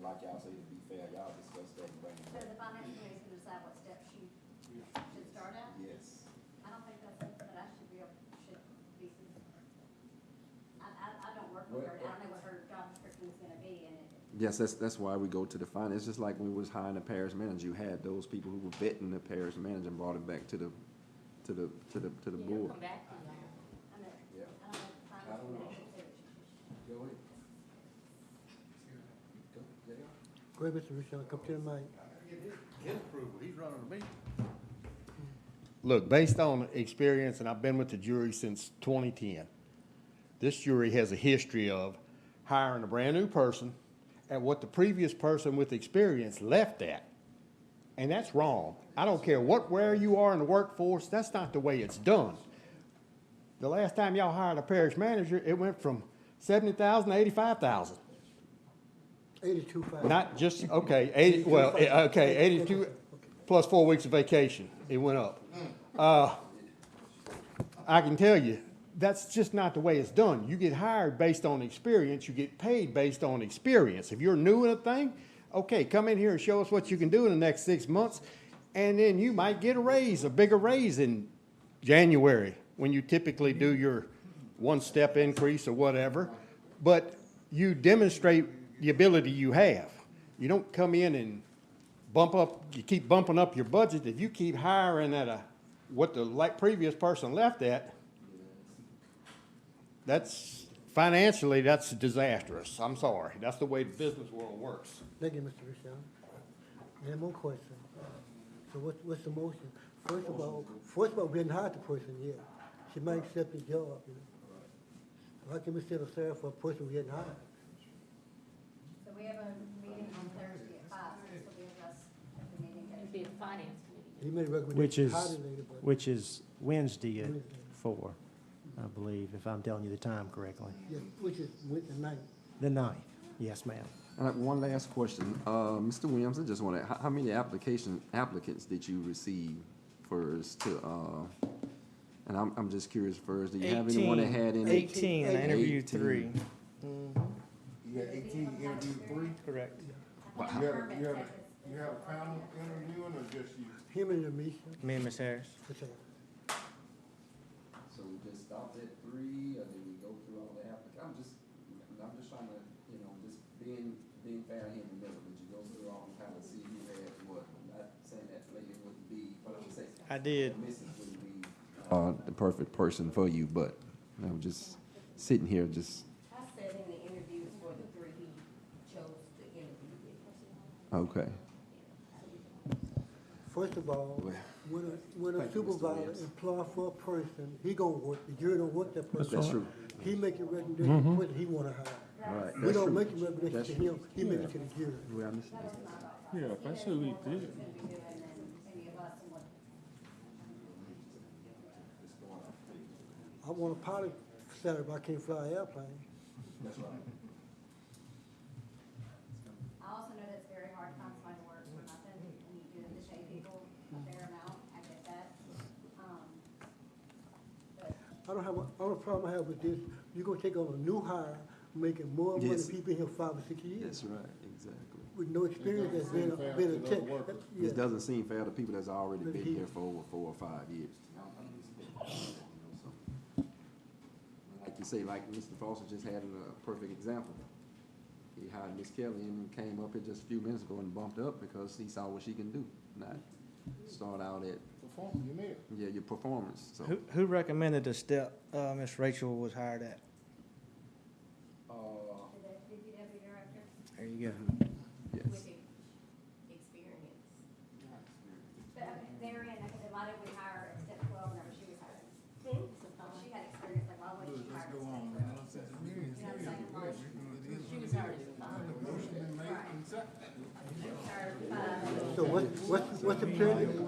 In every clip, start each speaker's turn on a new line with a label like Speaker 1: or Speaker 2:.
Speaker 1: like y'all say, to be fair, y'all discuss that and bring it
Speaker 2: So
Speaker 1: back.
Speaker 2: the finance committee can decide what steps you should start at?
Speaker 1: Yes.
Speaker 2: I don't think that's something that I should be, able- should be, I, I, I don't work with her, I don't know what her job description is gonna be, and it,
Speaker 3: Yes, that's, that's why we go to the finance. It's just like when we was hiring a parish manager, you had those people who were vetting the parish manager and brought it back to the, to the, to the, to the
Speaker 4: Yeah,
Speaker 3: board.
Speaker 4: Come back to y'all.
Speaker 2: I know,
Speaker 1: Yeah.
Speaker 2: I don't know, the
Speaker 1: I
Speaker 2: finance
Speaker 1: don't know.
Speaker 2: committee should say what she should.
Speaker 1: Go ahead. Go, JR.
Speaker 5: Go ahead, Mr. Rochelle, come to the mic.
Speaker 6: His approval, he's running the meeting.
Speaker 7: Look, based on experience, and I've been with the jury since 2010, this jury has a history of hiring a brand-new person at what the previous person with experience left at. And that's wrong. I don't care what, where you are in the workforce, that's not the way it's done. The last time y'all hired a parish manager, it went from 70,000 to 85,000.
Speaker 5: Eighty-two five.
Speaker 7: Not just, okay, eighty, well, eh, okay, eighty-two, plus four weeks of vacation, it went up. Uh, I can tell you, that's just not the way it's done. You get hired based on experience, you get paid based on experience. If you're new in a thing, okay, come in here and show us what you can do in the next six months, and then you might get a raise, a bigger raise in January, when you typically do your one-step increase or whatever. But you demonstrate the ability you have. You don't come in and bump up, you keep bumping up your budget. If you keep hiring at a, what the like previous person left at, that's, financially, that's disastrous. I'm sorry. That's the way the business world works.
Speaker 5: Thank you, Mr. Rochelle. Any more questions? So what's, what's the motion? First of all, first of all, we didn't hire the person yet. She might accept the job, you know. So How can we set a salary for a person we hadn't hired?
Speaker 2: So we have a meeting on Thursday at five, so this will be addressed at the meeting.
Speaker 4: It'd be the finance committee.
Speaker 5: He made a
Speaker 8: Which
Speaker 5: recommendation.
Speaker 8: is,
Speaker 5: to hire the lady, but-
Speaker 8: which is Wednesday at
Speaker 5: Wednesday.
Speaker 8: four, I believe, if I'm telling you the time correctly.
Speaker 5: Yes, which is Wednesday night.
Speaker 8: The ninth, yes, ma'am.
Speaker 3: And I- one last question, uh, Mr. Williams, I just wanna, how, how many application, applicants did you receive first to, uh, and I'm, I'm just curious first, do you have anyone that had any?
Speaker 8: Eighteen, and I interviewed three,
Speaker 3: 18.
Speaker 6: You had eighteen, you interviewed three?
Speaker 8: correct.
Speaker 6: You had, a- you had, a- you had a panel interviewing or just you?
Speaker 5: Him and Amisha,
Speaker 8: Me and Ms. Harris.
Speaker 5: for sure.
Speaker 1: So we just stopped at three, or did we go through all the applic, I'm just, I'm just trying to, you know, just being, being fair here in the middle, did you go through all and kind of see who had what? I'm Not saying that lady wouldn't be, but I'm saying,
Speaker 8: I did.
Speaker 1: Mrs. wouldn't be,
Speaker 3: Uh, the perfect person for you, but I'm just sitting here, just,
Speaker 2: I said in the interviews for the three, he chose to interview with.
Speaker 3: okay.
Speaker 5: First of all,
Speaker 3: Well,
Speaker 5: when a, when a
Speaker 3: thank you, Mr.
Speaker 5: supervisor
Speaker 3: Williams.
Speaker 5: employ for a person, he gonna work, the jury don't work that person.
Speaker 3: That's true.
Speaker 5: He make a recommendation
Speaker 8: Mm-hmm.
Speaker 5: to what he wanna hire.
Speaker 3: Right.
Speaker 5: We don't make a
Speaker 3: That's
Speaker 5: recommendation to
Speaker 3: true.
Speaker 5: him, he make it to the jury.
Speaker 3: Well, I missed it.
Speaker 9: Yeah, if I say we did,
Speaker 2: He's gonna be doing than any of us and what
Speaker 5: I want a pilot salary, but I can't fly an airplane.
Speaker 1: that's right.
Speaker 2: I also know that's very hard to find somebody to work for nothing, and you do the pay people a fair amount, I get that. Um, But
Speaker 5: I don't have, a- all the problem I have with this, you're gonna take on a new hire, making more money
Speaker 3: Yes.
Speaker 5: than people in here five or six years,
Speaker 3: That's right, exactly.
Speaker 5: with no experience that's been, a- been a tech. Yeah.
Speaker 3: It doesn't seem fair to people that's already
Speaker 5: But
Speaker 3: been
Speaker 5: he-
Speaker 3: here for over four or five years. Like you say, like Mr. Foster just had a perfect example. He hired Miss Kelly and came up here just a few minutes ago and bumped up because he saw what she can do, not start out at,
Speaker 6: Performing, you made it.
Speaker 3: yeah, your performance, so.
Speaker 10: Who, who recommended the step uh, Miss Rachel was hired at?
Speaker 1: Uh,
Speaker 2: to the DPW director,
Speaker 10: There you go.
Speaker 3: Yes,
Speaker 4: Experience.
Speaker 2: but I mean, therein, I said, why didn't we hire at step twelve whenever she was hired? If She had experience, like, why wouldn't she hire at step twelve? You know what I'm saying? Why would she-
Speaker 4: She was hired as a finance.
Speaker 5: So what, what, what's the pleasure, so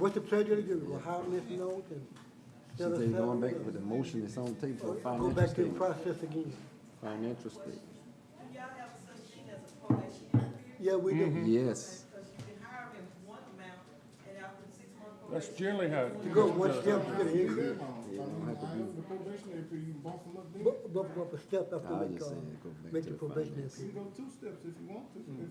Speaker 5: what's the pleasure to do, we'll hire Ms. Note and
Speaker 3: she
Speaker 5: set
Speaker 3: said
Speaker 5: her
Speaker 3: going
Speaker 5: salary?
Speaker 3: back with the motion that's on the table for
Speaker 5: up? Go
Speaker 3: financial
Speaker 5: back to the
Speaker 3: statement,
Speaker 5: process again.
Speaker 3: financial statement.
Speaker 11: Do y'all have such thing as a probation period?
Speaker 5: Yeah, we
Speaker 3: Mm-hmm.
Speaker 5: do.
Speaker 3: Yes,
Speaker 11: Because you can hire them in one amount, and after six months.
Speaker 9: that's
Speaker 11: probation,
Speaker 9: generally how. it
Speaker 5: You go
Speaker 9: goes.
Speaker 5: one step, you get an increase,
Speaker 6: The probationary period, you can bump them up then.
Speaker 5: Bu- bump, bump a step after
Speaker 3: I
Speaker 5: we
Speaker 3: just
Speaker 5: call,
Speaker 3: said go back
Speaker 5: make
Speaker 3: to
Speaker 5: the
Speaker 3: the
Speaker 5: probation
Speaker 3: finance.
Speaker 6: You
Speaker 5: period.
Speaker 6: can go two steps if you want to.
Speaker 9: Mm.